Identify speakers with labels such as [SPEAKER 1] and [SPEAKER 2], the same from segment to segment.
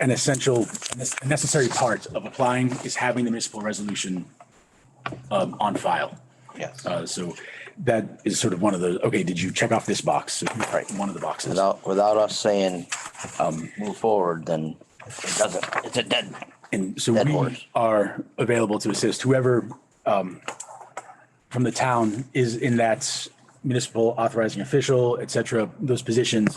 [SPEAKER 1] an essential, a necessary part of applying is having the municipal resolution um, on file.
[SPEAKER 2] Yes.
[SPEAKER 1] Uh, So that is sort of one of the, okay, did you check off this box? So, Right, one of the boxes.
[SPEAKER 2] Without, without us saying, um, move forward, then it doesn't, it's a dead.
[SPEAKER 1] And so
[SPEAKER 2] Dead
[SPEAKER 1] we
[SPEAKER 2] horse.
[SPEAKER 1] are available to assist whoever um, from the town is in that municipal authorizing official, et cetera, those positions.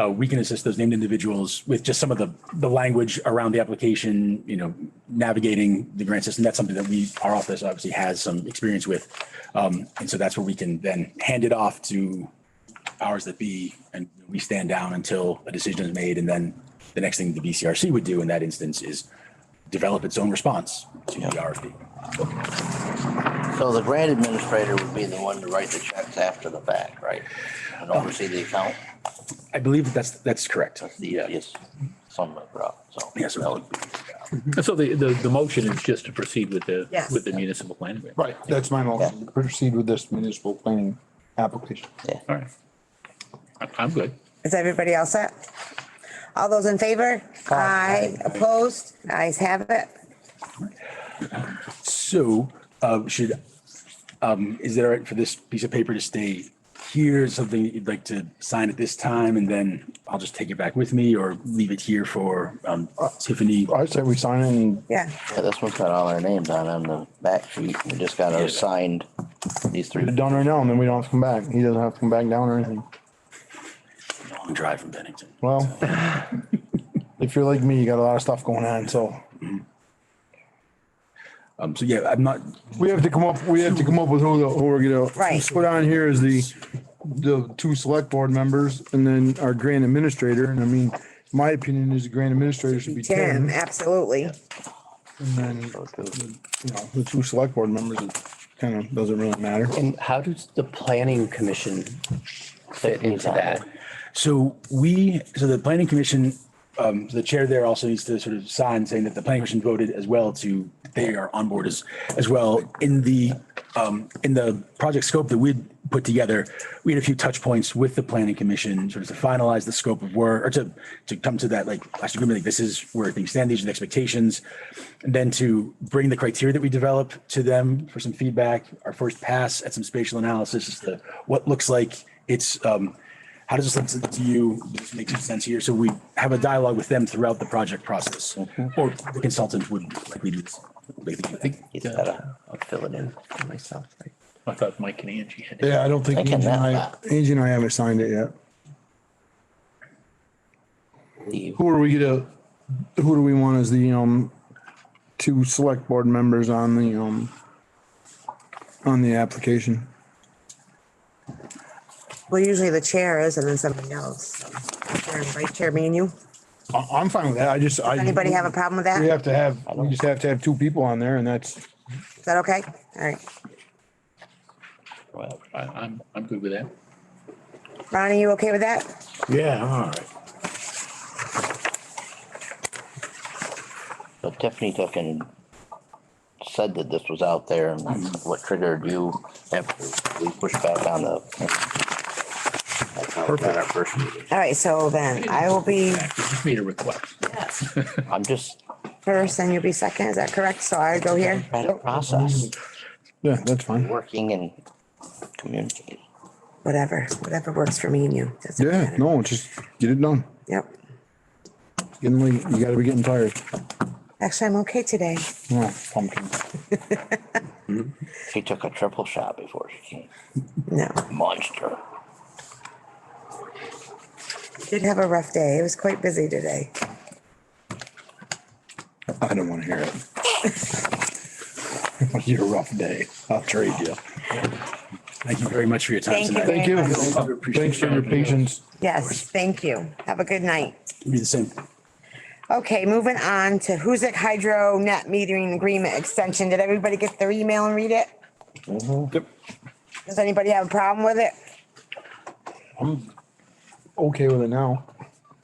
[SPEAKER 1] uh, We can assist those named individuals with just some of the, the language around the application, you know, navigating the grant system. That's something that we, our office obviously has some experience with. Um, And so that's where we can then hand it off to powers that be, and we stand down until a decision is made. And then the next thing the BCRC would do in that instance is develop its own response to the RFP.
[SPEAKER 2] So the grant administrator would be the one to write the checks after the fact, right? And oversee the account,
[SPEAKER 1] I believe that's, that's correct. Um,
[SPEAKER 2] the easiest, some of it, so.
[SPEAKER 1] Yes, sir.
[SPEAKER 2] that would be-
[SPEAKER 3] And so the, the, the motion is just to proceed with the,
[SPEAKER 4] Yes.
[SPEAKER 3] with the municipal planning. grant.
[SPEAKER 5] Right, that's my motion. Proceed with this municipal planning application.
[SPEAKER 2] Yeah.
[SPEAKER 3] All right. I- I'm good.
[SPEAKER 4] Is everybody all set? All those in favor? Aye. Opposed? Ayes have it.
[SPEAKER 1] So uh, should, um, is it all right for this piece of paper to stay here? Something you'd like to sign at this time and then I'll just take it back with me or leave it here for um, Tiffany?
[SPEAKER 5] I say we sign in,
[SPEAKER 4] Yeah.
[SPEAKER 2] Yeah, this one's got all our names on, it on the back sheet, we just got
[SPEAKER 1] Yeah.
[SPEAKER 2] our signed, these three.
[SPEAKER 5] get it done right now, and then we don't have to come back. He doesn't have to come back down or anything.
[SPEAKER 1] Long drive from Bennington.
[SPEAKER 5] Well, if you're like me, you got a lot of stuff going on, so
[SPEAKER 1] Um, So yeah, I'm not,
[SPEAKER 5] we have to come up, we have to come up with who, the- who we're gonna.
[SPEAKER 4] Right.
[SPEAKER 5] Put on here is the, the two select board members and then our grant administrator. And I mean, my opinion is the grant administrator should be
[SPEAKER 4] Tim,
[SPEAKER 5] Tim.
[SPEAKER 4] absolutely.
[SPEAKER 5] And then,
[SPEAKER 2] So two.
[SPEAKER 5] you know, the two select board members, it kind of doesn't really matter.
[SPEAKER 6] And how does the planning commission fit into that?
[SPEAKER 1] So we, so the planning commission, um, the chair there also needs to sort of sign saying that the planning commission voted as well to, they are on board as, as well. In the, um, in the project scope that we'd put together, we had a few touch points with the planning commission, sort of to finalize the scope of work or to, to come to that like last agreement, like this is where things stand, these are the expectations. And then to bring the criteria that we develop to them for some feedback, our first pass at some spatial analysis is the, what looks like it's, um, how does this look to- to you? Does this make some sense here? So we have a dialogue with them throughout the project process, or the consultant would likely do this. They think-
[SPEAKER 2] He's gotta, I'll fill it in.
[SPEAKER 6] for myself, right?
[SPEAKER 3] I thought Mike and Angie had. it.
[SPEAKER 5] Yeah, I don't think
[SPEAKER 2] I
[SPEAKER 5] Angie and I,
[SPEAKER 2] cannot.
[SPEAKER 5] Angie and I haven't signed it yet.
[SPEAKER 2] Leave.
[SPEAKER 5] Who are we gonna, who do we want as the, um, two select board members on the, um, on the application?
[SPEAKER 4] Well, usually the chair is and then somebody else. Chair and Vice chair, me and you.
[SPEAKER 5] I, I'm fine with that. I just, I.
[SPEAKER 4] Anybody have a problem with
[SPEAKER 5] We
[SPEAKER 4] that?
[SPEAKER 5] have to have, we just have to have two people on there and that's,
[SPEAKER 4] Is that okay? All right.
[SPEAKER 2] Well,
[SPEAKER 3] I, I'm, I'm good with that.
[SPEAKER 4] Ronnie, you okay with that?
[SPEAKER 7] Yeah, all right.
[SPEAKER 2] But Tiffany took and said that this was out there and
[SPEAKER 1] Hmm.
[SPEAKER 2] that's what triggered you after we pushed back on the. That's how we got our first meeting.
[SPEAKER 4] All right, so then I will be
[SPEAKER 3] You just made a request.
[SPEAKER 2] I'm just,
[SPEAKER 4] first and you'll be second. Is that correct? So I go here.
[SPEAKER 2] trying to process,
[SPEAKER 5] yeah, that's fine.
[SPEAKER 2] working and communicating.
[SPEAKER 4] Whatever, whatever works for me and you. Doesn't
[SPEAKER 5] Yeah,
[SPEAKER 4] matter.
[SPEAKER 5] no, just get it done.
[SPEAKER 4] Yep.
[SPEAKER 5] Getting late, you gotta be getting tired.
[SPEAKER 4] Actually, I'm okay today.
[SPEAKER 5] Oh, pumpkin.
[SPEAKER 2] She took a triple shot before she came.
[SPEAKER 4] No,
[SPEAKER 2] Monster.
[SPEAKER 4] did have a rough day. It was quite busy today.
[SPEAKER 5] I don't wanna hear it. You're a rough day. I'll trade you.
[SPEAKER 1] Thank you very much for your time
[SPEAKER 4] Thank you.
[SPEAKER 1] tonight.
[SPEAKER 5] Thank you.
[SPEAKER 1] Appreciate
[SPEAKER 5] Thanks for
[SPEAKER 1] it.
[SPEAKER 5] your patience.
[SPEAKER 4] Yes, thank you. Have a good night.
[SPEAKER 1] Be the same.
[SPEAKER 4] Okay, moving on to Huzik Hydro Net Metering Agreement Extension. Did everybody get their email and read it?
[SPEAKER 5] Yep.
[SPEAKER 4] Does anybody have a problem with it?
[SPEAKER 5] Okay with it now.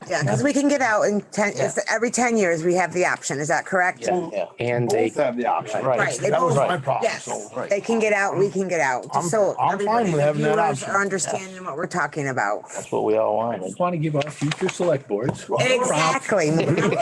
[SPEAKER 4] Yeah, because we can get out in ten, it's every ten years, we have the option. Is that correct?
[SPEAKER 2] Yeah.
[SPEAKER 6] And they,
[SPEAKER 5] have the option.
[SPEAKER 4] Right, they
[SPEAKER 5] That was
[SPEAKER 4] both-
[SPEAKER 5] my problem,
[SPEAKER 4] Yes,
[SPEAKER 5] so, right.
[SPEAKER 4] they can get out, we can get out.
[SPEAKER 5] I'm-
[SPEAKER 4] So
[SPEAKER 5] I'm fine
[SPEAKER 4] everybody,
[SPEAKER 5] with
[SPEAKER 4] the
[SPEAKER 5] having that
[SPEAKER 4] viewers
[SPEAKER 5] option.
[SPEAKER 4] are understanding what we're talking about.
[SPEAKER 2] That's what we all
[SPEAKER 3] I
[SPEAKER 2] wanted.
[SPEAKER 3] just want to give our future select boards.
[SPEAKER 4] Exactly.